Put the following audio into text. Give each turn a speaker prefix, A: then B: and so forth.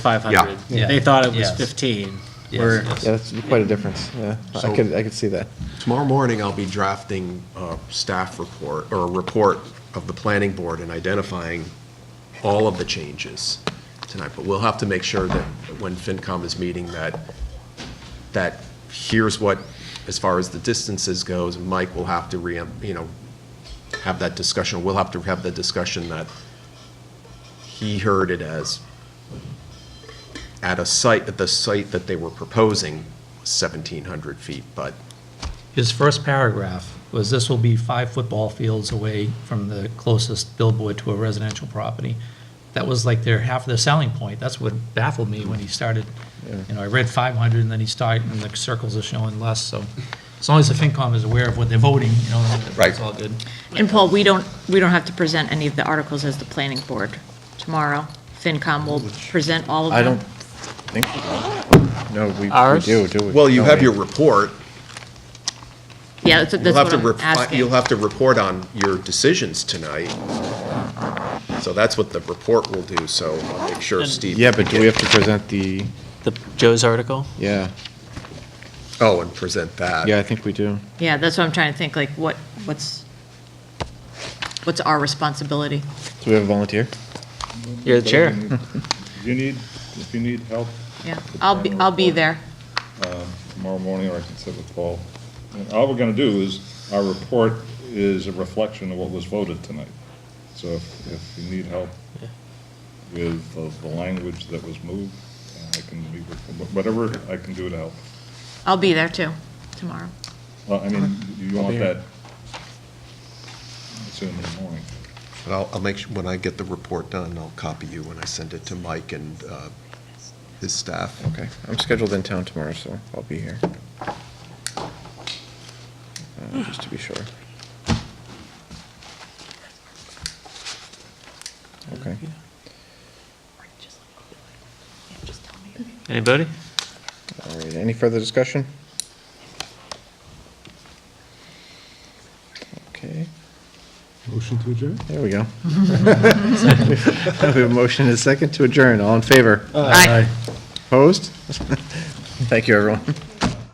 A: 500.
B: Yeah.
C: Yeah.
A: They thought it was
C: Yes.
A: 15.
C: Yes,
A: We're-
C: yes.
D: Yeah, that's quite a difference, yeah. I
B: So-
D: could, I could see that.
B: Tomorrow morning, I'll be drafting a staff report, or a report of the planning board and identifying all of the changes tonight, but we'll have to make sure that when FinCom is meeting, that, that here's what, as far as the distances goes, Mike will have to re, you know, have that discussion, we'll have to have the discussion that he heard it as at a site, at the site that they were proposing, 1,700 feet, but
C: His first paragraph was, "This will be five football fields away from the closest billboard to a residential property." That was like their half of their selling point. That's what baffled me when he started. You know, I read 500, and then he started, and the circles are showing less, so as long as the FinCom is aware of what they're voting, you know, then it's
B: Right.
C: all good.
E: And Paul, we don't, we don't have to present any of the articles as the planning board tomorrow. FinCom will present all of them.
D: I don't think, no, we- we
A: Ours?
D: do, do we?
B: Well, you
D: No,
B: have
D: wait.
B: your report.
E: Yeah, that's
B: You'll
E: that's
B: have
E: what
B: to,
E: I'm
B: repli-
E: asking.
B: you'll have to report on your decisions tonight. So that's what the report will do, so I'll make sure Steve.
D: Yeah, but do we have to present the,
F: The Joe's article?
D: yeah,
B: Oh, and present that.
D: yeah, I think we do.
E: Yeah, that's what I'm trying to think, like, what, what's, what's our responsibility?
D: Do we have a volunteer?
F: You're the chair.
G: If you need, if you need help
E: Yeah, I'll be, I'll be there.
G: tomorrow morning, or I can sit with Paul. And all we're gonna do is, our report is a reflection of what was voted tonight. So if, if you need help with the, the language that was moved, uh, I can meet with, whatever I can do to help.
E: I'll be there too, tomorrow.
G: Well, I mean, you want that soon in the morning.
B: But I'll, I'll make, su- when I get the report done, I'll copy you when I send it to Mike and uh, his staff.
D: Okay, I'm scheduled in town tomorrow, so I'll be here. Uh, Just to be sure. Okay.
F: Anybody?
D: All right, any further discussion? Okay. Motion to adjourn? There we go. We have a motion and a second to adjourn. All in favor?
E: Aye.
D: Opposed? Thank you, everyone.